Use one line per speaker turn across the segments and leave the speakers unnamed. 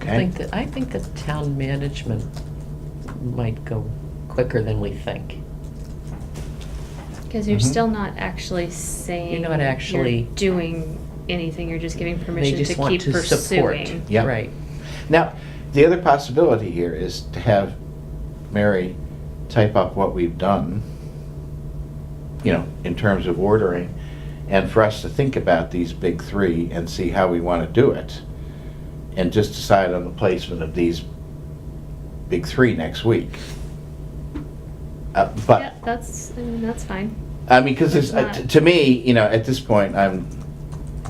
think that, I think that town management might go quicker than we think.
Because you're
Mhm.
still not actually saying.
Mm-hmm. You're not actually-
you're doing anything, you're just giving
They
permission to
just want
keep
to support.
pursuing.
Yeah.
Right.
Now, the other possibility here is to have Mary type up what we've done, you know, in terms of ordering, and for us to think about these big three and see how we want to do it, and just decide on the placement of these big three next week. Uh,
Yeah,
But,
that's, I mean, that's fine,
I mean, because
It's not-
to me, you know, at this point, I'm,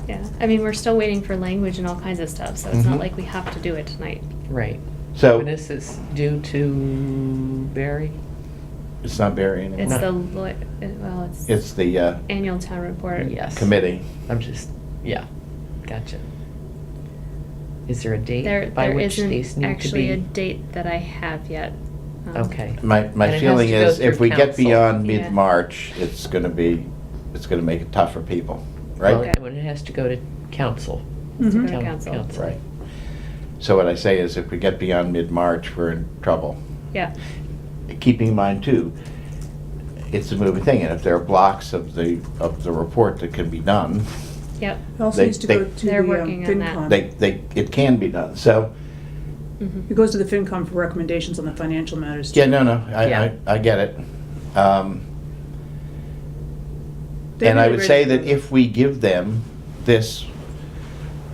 yeah. I mean, we're still waiting for language and all kinds of stuff, so it's
Mm-hmm.
not
Mhm.
like we have to do it tonight.
Right.
so,
And this is due to Barry?
it's not Barry
It's
anymore.
the, lo- it- well, it's.
It's the uh,
Annual town report.
Yes.
committee.
I'm just, yeah, gotcha. Is there a
There,
date by
there
which these
isn't
need to
actually a
be?
date that I have yet. Um,
Okay.
My,
And it
my
has
feeling
to go
is if
through
we get
council.
beyond
Yeah.
mid-March, it's gonna be, it's gonna make it tough for people,
Well,
right?
Okay.
When it has to go to council.
it's
Mhm.
for
Town
council.
council.
Right. So what I say is if we get beyond mid-March, we're in trouble.
Yeah,
Keeping in mind too, it's a moving thing, and if there are blocks of the, of the report that can be done,
yep.
It also
They-
needs to
they-
go to the
They're
um,
working on that.
FinCom.
they, they, it can be done, so,
Mhm.
It goes to the FinCom for recommendations on the financial matters. too.
yeah, no, no, I,
Yeah.
I, I get it. Um,
They
And I
really
would
read
say
it.
that if we give them this,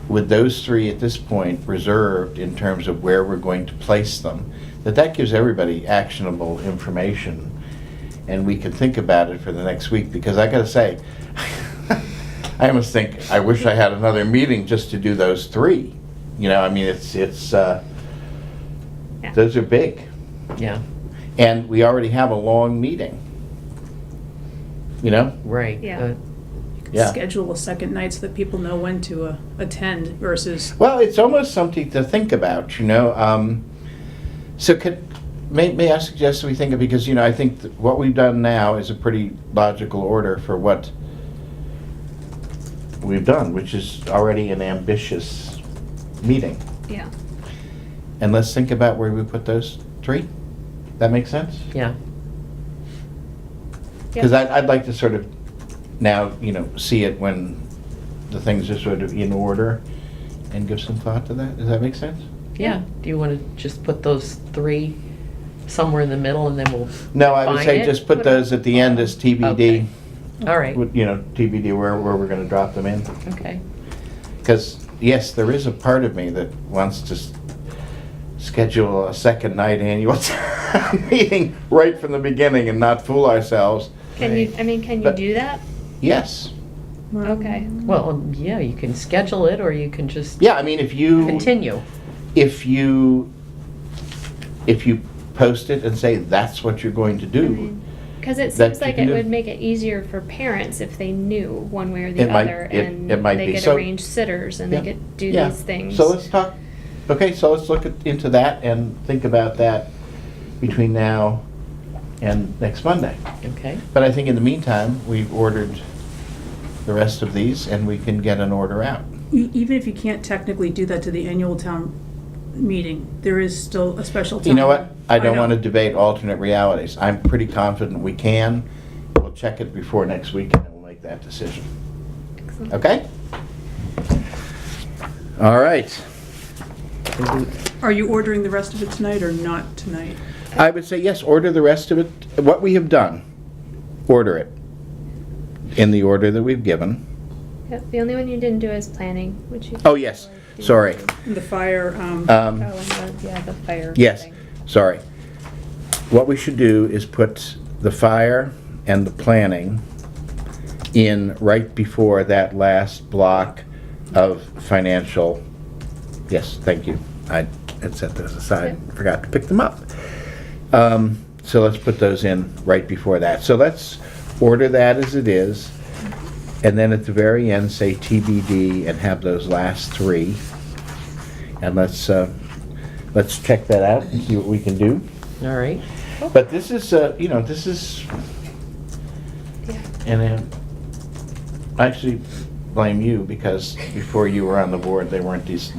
with those three at this point reserved in terms of where we're going to place them, that that gives everybody actionable information, and we can think about it for the next week, because I gotta say, I almost think, I wish I had another meeting just to do those three. You know, I mean, it's, it's, uh,
Yeah.
those are big,
Yeah,
and we already have a long meeting. You know?
right.
Yeah.
uh,
Yeah.
Schedule a second night so that people know when to uh, attend versus,
Well, it's almost something to think about, you know. Um, so, could may, may I suggest we think of because you know I think that what we've done now is a pretty logical order for what we've done, which is already an ambitious meeting.
Yeah,
And let's think about where we put those three. That makes sense
Yeah,
because
Yep.
I'd, I'd like to sort of now you know see it when the things are sort of in order and give some thought to that. Does that make sense?
yeah. Do you want to just put those three somewhere in the middle and then we'll,
No, I would
Find
say
it?
just put those at the end as
Okay.
TBD,
all right,
with, you know, TBD where, where we're gonna drop them in.
okay.
Because, yes, there is a part of me that wants to s- schedule a second night annual town meeting right from the beginning and not fool ourselves.
can you,
Right.
I mean, can you
But-
do that?
Yes,
Okay.
Well, um, yeah, you can schedule it or you can just
yeah, I mean, if you,
continue.
if you, if you post it and say that's what you're going to do,
Because it
That
seems
you
like
can
it
do.
would make it easier for parents if they knew one way or the
It might-
other,
it-
and
it might
they
be.
could
So-
arrange sitters and they
Yeah.
could do
Yeah.
these things.
So let's talk, okay, so let's look at- into that and think about that between now and next Monday.
Okay,
But I think in the meantime, we've ordered the rest of these and we can get an order out.
e- even if you can't technically do that to the annual town meeting, there is still a special town.
You know what? I don't
know.
want to debate alternate realities. I'm pretty confident we can. We'll check it before next week and we'll make that decision.
Excellent.
Okay? All right.
Are you ordering the rest of it tonight or not tonight?
I would say yes, order the rest of it, what we have done, order it in the order that we've given.
Yep, the only one you didn't do is planning, which you.
Oh, yes, sorry.
The fire, um,
Oh,
Um,
and the, yeah, the fire.
Yes,
thing.
sorry. What we should do is put the fire and the planning in right before that last block of financial, yes, thank you. I had set those aside, and forgot to pick them up. Um, So let's put those in right before that. So let's order that as it is, and then at the very end, say TBD and have those last three. And let's, uh, let's check that out and see what we can do.
all right.
But this is, uh, you know, this is,
Yeah.
and uh, I actually blame you because before you were on the board, they weren't these